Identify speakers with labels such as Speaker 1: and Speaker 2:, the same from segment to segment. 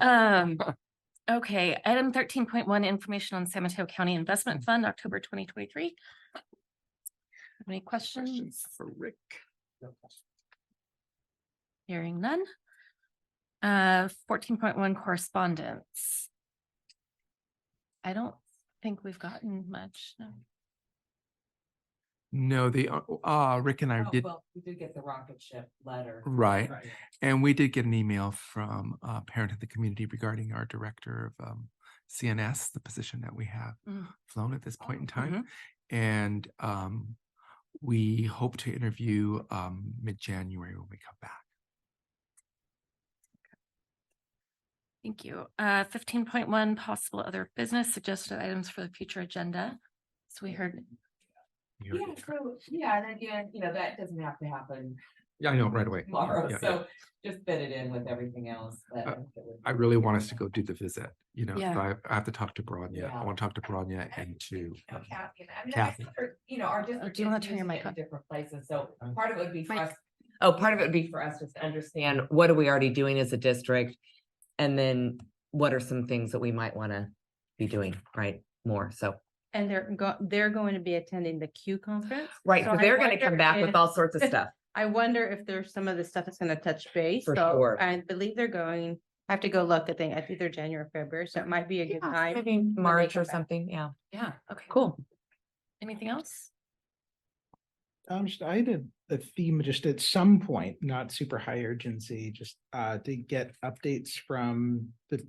Speaker 1: Um, okay, item thirteen point one, information on San Mateo County Investment Fund, October twenty twenty-three. Any questions?
Speaker 2: For Rick.
Speaker 1: Hearing none. Uh, fourteen point one correspondence. I don't think we've gotten much. no.
Speaker 2: No, the, uh, uh, Rick and I
Speaker 3: Oh,
Speaker 2: did,
Speaker 3: well, We did get the rocket ship letter.
Speaker 2: right. And we did get an email from a parent of the community regarding our director of um, CNS, the position that we have
Speaker 1: Mm. Mm-hmm.
Speaker 2: flown at this point in
Speaker 3: Oh,
Speaker 2: time. And um, we hope to interview um, mid-January when we come back.
Speaker 1: Thank you. Uh, fifteen point one, possible other business suggested items for the future agenda. So we heard,
Speaker 2: You
Speaker 3: Yeah,
Speaker 2: already-
Speaker 3: so, yeah, and again, you know, that doesn't have to happen
Speaker 2: Yeah, I know, right away.
Speaker 3: tomorrow,
Speaker 2: Yeah, yeah.
Speaker 3: so just fit it in with everything else. but
Speaker 2: Uh,
Speaker 3: think it would
Speaker 2: I
Speaker 3: be-
Speaker 2: really want us to go do the visit, you know, so
Speaker 1: Yeah.
Speaker 2: I I have to talk to Bronya. I
Speaker 3: Yeah.
Speaker 2: want to talk to Bronya and to.
Speaker 3: You know,
Speaker 2: um,
Speaker 3: Oh, Kathy, and I mean, I
Speaker 2: Kathy.
Speaker 3: think our- You know, our district.
Speaker 1: Oh, do you wanna
Speaker 3: is
Speaker 1: turn your
Speaker 3: using
Speaker 1: mic
Speaker 3: it in
Speaker 1: on?
Speaker 3: Different places, so
Speaker 2: Um,
Speaker 3: part of it would be for
Speaker 1: Mic.
Speaker 3: us, oh, part of it would be for us just to understand what are we already doing as a district? And then what are some things that we might wanna be doing, right, more, so.
Speaker 4: And they're go, they're going to be attending the Q conference.
Speaker 3: Right,
Speaker 4: So
Speaker 3: so
Speaker 4: I
Speaker 3: they're gonna
Speaker 4: wonder
Speaker 3: come back with
Speaker 4: if-
Speaker 3: all sorts of stuff.
Speaker 4: I wonder if there's some of the stuff that's gonna touch base.
Speaker 3: For
Speaker 4: So
Speaker 3: sure.
Speaker 4: I believe they're going, I have to go look, I think, I think they're January, or February, so it might be a good
Speaker 3: Yeah,
Speaker 4: time.
Speaker 3: Maybe March
Speaker 4: come
Speaker 3: or
Speaker 4: back.
Speaker 3: something, yeah,
Speaker 1: yeah, okay,
Speaker 3: cool.
Speaker 1: anything else?
Speaker 5: Um, just- I had a, a theme just at some point, not super high urgency, just uh to get updates from the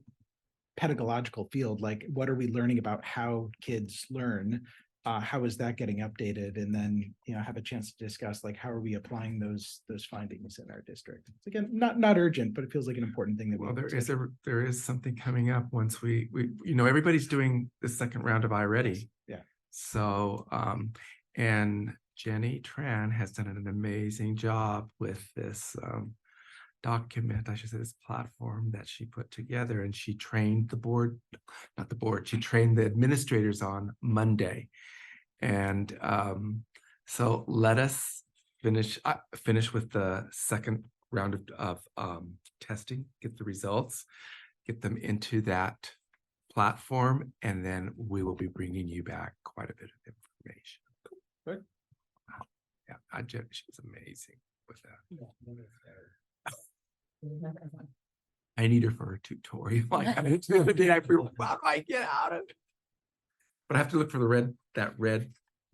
Speaker 5: pedagogical field, like what are we learning about how kids learn? Uh, how is that getting updated? And then, you know, have a chance to discuss like how are we applying those, those findings in our district? It's Again, not, not urgent, but it feels like an important thing that. we
Speaker 2: Well, there
Speaker 5: need to-
Speaker 2: is a, there is something coming up once we, we, you know, everybody's doing the second round of iReady.
Speaker 5: Yeah.
Speaker 2: So, um, and Jenny Tran has done an amazing job with this, um, document, I should say this platform that she put together and she trained the board, not the board, she trained the administrators on Monday. And, um, so let us finish, uh, finish with the second round of, of, um, testing, get the results, get them into that platform, and then we will be bringing you back quite a bit of information.
Speaker 5: Good.
Speaker 2: Wow. Yeah, I just, she was amazing with that. I need her for a tutorial. Like I did the other day, I feel like, how do I get out of? it? But I have to look for the red, that red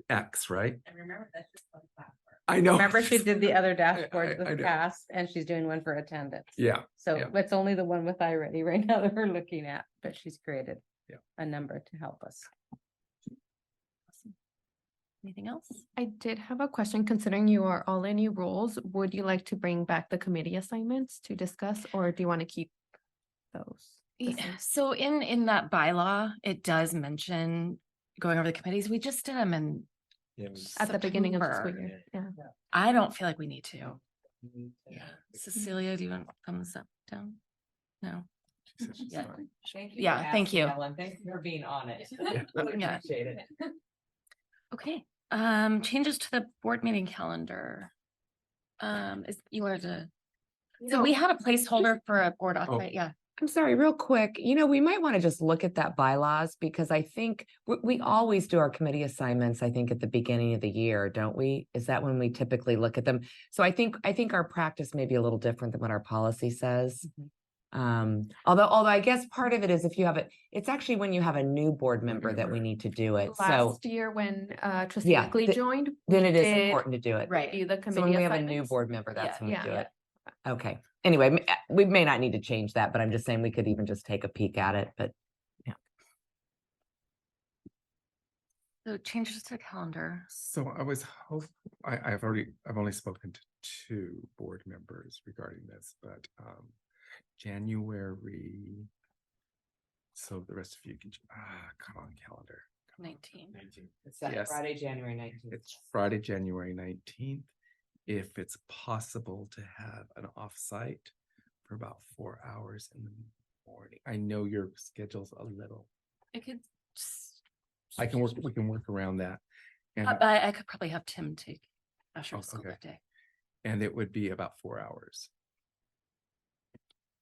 Speaker 2: X, right?
Speaker 3: And remember, that's just one platform.
Speaker 2: I know.
Speaker 4: Remember she did the other
Speaker 2: I-
Speaker 4: dashboard
Speaker 2: I
Speaker 4: with
Speaker 2: know.
Speaker 4: past, and she's doing one for attendance.
Speaker 2: Yeah,
Speaker 4: So
Speaker 2: yeah.
Speaker 4: it's only the one with iReady right now that we're looking at, but she's created
Speaker 2: Yeah.
Speaker 4: a number to help us.
Speaker 1: Anything else?
Speaker 6: I did have a question, considering you are all in new roles, would you like to bring back the committee assignments to discuss, or do you want to keep those? the
Speaker 1: Yeah,
Speaker 6: same?
Speaker 1: so in, in that bylaw, it does mention going over the committees. We just did them and
Speaker 6: At the beginning of the school
Speaker 1: September.
Speaker 6: year, yeah.
Speaker 1: I don't feel like we need to.
Speaker 2: Mm-hmm.
Speaker 3: Yeah.
Speaker 6: Mm-hmm.
Speaker 1: Cecilia, do you want thumbs up, down? No,
Speaker 2: she said she's
Speaker 1: Yeah.
Speaker 2: fine.
Speaker 3: Thank you. for
Speaker 1: Yeah, thank
Speaker 3: asking,
Speaker 1: you.
Speaker 3: Ellen. Thank you for being on it.
Speaker 2: Yeah.
Speaker 3: Really
Speaker 1: Yeah.
Speaker 3: Appreciate it.
Speaker 1: okay. Um, changes to the board meeting calendar. Um, is, you wanted to, so
Speaker 6: No,
Speaker 1: we had a placeholder for a board off,
Speaker 2: Oh.
Speaker 1: right? Yeah.
Speaker 3: I'm sorry, real quick, you know, we might want to just look at that bylaws because I think we, we always do our committee assignments, I think, at the beginning of the year, don't we? Is that when we typically look at them? So I think, I think our practice may be a little different than what our policy says.
Speaker 6: Mm-hmm.
Speaker 3: Um, although, although I guess part of it is if you have it, it's actually when you have a new board member that we
Speaker 2: member.
Speaker 3: need to do it. So
Speaker 6: Last year, when uh trustee
Speaker 3: Yeah,
Speaker 6: Eckley
Speaker 3: the-
Speaker 6: joined.
Speaker 3: then
Speaker 6: we
Speaker 3: it is
Speaker 6: did
Speaker 3: important to do it.
Speaker 1: Right.
Speaker 6: review the
Speaker 3: So when
Speaker 6: committee
Speaker 3: we have a new
Speaker 6: assignments.
Speaker 3: board member,
Speaker 1: Yeah,
Speaker 3: that's when we
Speaker 6: yeah,
Speaker 3: do
Speaker 6: yeah.
Speaker 3: it. Okay, anyway, m- uh, we may not need to change that, but I'm just saying we could even just take a peek at it, but
Speaker 1: So changes to the calendar.
Speaker 2: So I was hope, I, I've already, I've only spoken to two board members regarding this, but, um, January. So the rest of you can, ah, come on, calendar. come on.
Speaker 1: Nineteen.
Speaker 3: It's
Speaker 2: that Yes. Friday,
Speaker 3: January nineteenth.
Speaker 2: It's Friday, January nineteenth. If it's possible to have an offsite for about four hours in the morning. I know your schedule's a little,
Speaker 1: I could. s-
Speaker 2: I can work, we can work around that. And,
Speaker 1: Uh, But I could probably have Tim take Asher
Speaker 2: Oh,
Speaker 1: to school
Speaker 2: okay.
Speaker 1: that day.
Speaker 2: and it would be about four hours.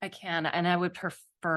Speaker 1: I can, and I would prefer